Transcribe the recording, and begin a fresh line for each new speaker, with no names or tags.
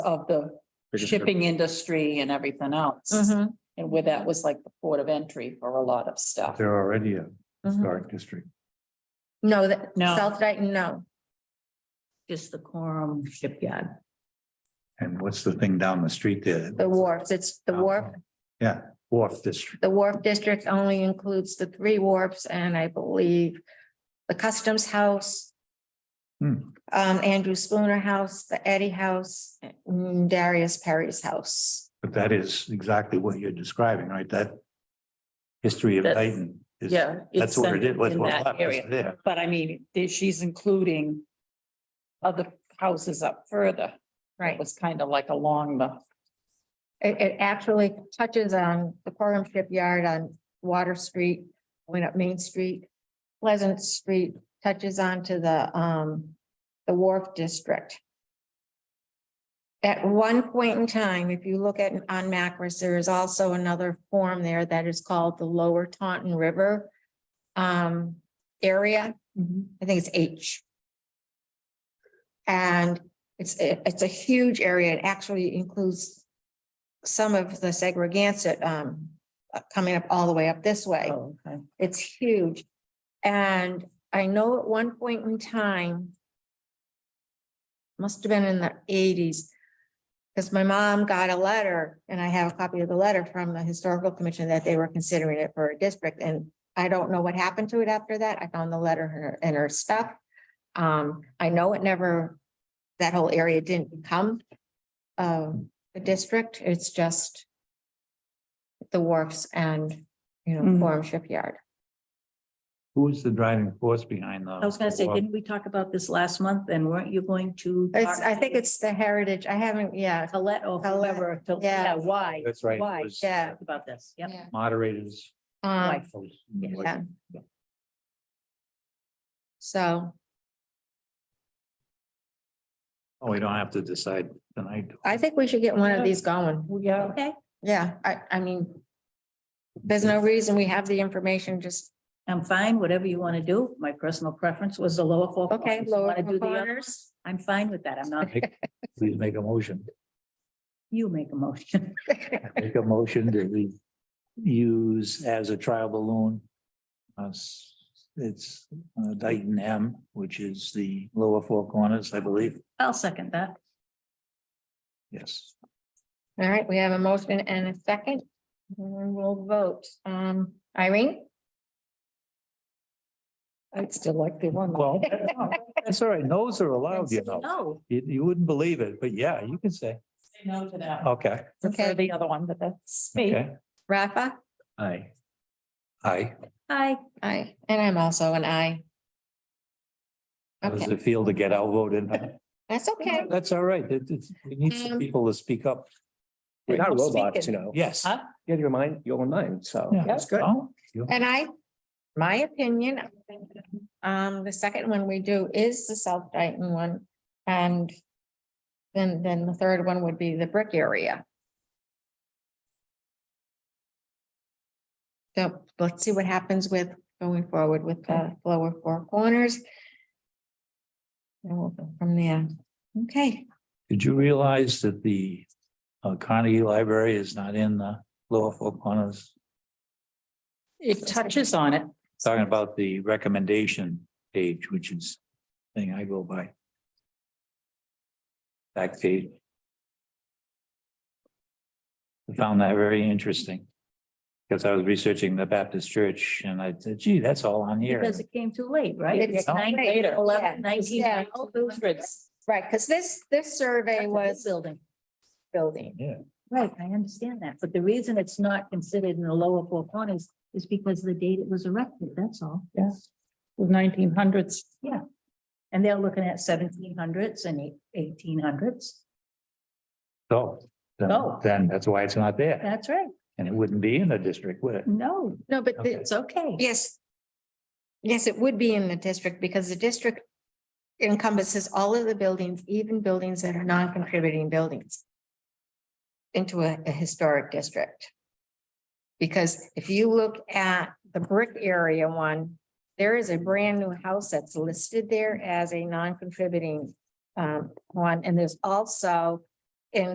of the shipping industry and everything
Mm-hmm.
else.
Mhm,
And where that was like the port of entry for a lot of stuff.
They're already a
mhm.
historic district.
No, that,
No.
South Dayton, no.
Just the Corum shipyard.
And what's the thing down the street there?
The wharfs, it's
Oh.
the wharf,
Yeah, wharf district.
the wharf district only includes the three wharfs and I believe the Customs House,
Hmm.
um, Andrew Spooner House, the Eddie House, and Darius Perry's house.
But that is exactly what you're describing, right? That history of
That's-
Dayton. is-
Yeah.
That's what it is, what's
in
what's
that
left is
area.
there.
But I mean, there- she's including other houses up further. It
Right.
was kind of like along the,
It, it actually touches on the Corum Shipyard on Water Street, went up Main Street. Pleasant Street touches on to the, um, the Wharf District. At one point in time, if you look at, on Macris, there is also another form there that is called the Lower Taunton River, um, area.
Mm-hmm.
I think it's H. And it's, a- it's a huge area. It actually includes some of the Segregansett, um, uh, coming up all the way up this way.
oh, okay.
It's huge. And I know at one point in time, must have been in the eighties, because my mom got a letter, and I have a copy of the letter from the historical commission that they were considering it for a district, and I don't know what happened to it after that. I found the letter in her, in her stuff. Um, I know it never, that whole area didn't become um, a district. It's just the wharfs and, you know,
Mhm.
Forum Shipyard.
Who is the driving force behind the?
I was gonna say, didn't we talk about this last month and weren't you going to?
It's,
talk
I think it's the heritage. I haven't, yeah.
to Colette or
Colette,
whoever, to-
yeah.
yeah, why?
That's right. it
Why?
was
Yeah.
About this, yeah.
Moderators.
Um,
Yeah.
so
Oh, we don't have to decide tonight.
I think we should get one of these going.
Well, yeah,
Okay,
Yeah, I, I mean, there's no reason we have the information, just,
I'm fine, whatever you want to do. My personal preference was the lower four.
Okay,
corners. You
lower
wanna do
four
the other one?
corners.
I'm fine with that. I'm not,
Please make a motion.
you make a motion.
Make a motion that we use as a trial balloon. uh, s- It's uh, Dayton M, which is the lower four corners, I believe.
I'll second that.
Yes.
all right, we have a motion and a second. And we'll vote. Um, Irene?
I'd still like the one.
Well, that's all right. No's are allowed, you know.
No,
You, you wouldn't believe it, but yeah, you can say,
Say no to that.
okay,
Prefer
Okay.
the other one, but that's me.
okay.
Rafa?
Aye. Aye.
I,
Aye, and I'm also an aye.
How does
Okay,
it feel to get outvoted?
that's okay.
That's all right. It, it's, we need some
Um,
people to speak up.
We're not
Who's
robots,
speaking?
you know.
Yes.
Huh?
You have your mind, your own mind, so.
Yeah.
that's good.
Oh, you-
And I, my opinion, I think, um, the second one we do is the South Dayton one and then, then the third one would be the brick area. So let's see what happens with going forward with the lower four corners. And we'll go from there. Okay,
Did you realize that the uh, Carnegie Library is not in the lower four corners?
It touches on it.
Talking about the recommendation page, which is the thing I go by. Back page. I found that very interesting. Because I was researching the Baptist church and I said, gee, that's all on here.
because it came too late, right?
It's
Nine-
late,
Eleven,
yeah.
nineteen,
Yeah. right, because this, this survey was
Building.
building.
Right, I understand that, but the reason it's not considered in the lower four corners is because the date it was erected, that's all.
Yes. Nineteen hundreds.
And they're looking at seventeen hundreds and eighteen hundreds.
So then,
Oh.
then that's why it's not there.
That's right.
And it wouldn't be in the district, would it?
No,
No, but the,
Okay.
it's okay.
Yes. Yes, it would be in the district because the district encompasses all of the buildings, even buildings that are non-contributing buildings into a, a historic district. Because if you look at the brick area one, there is a brand new house that's listed there as a non-contributing um, one, and there's also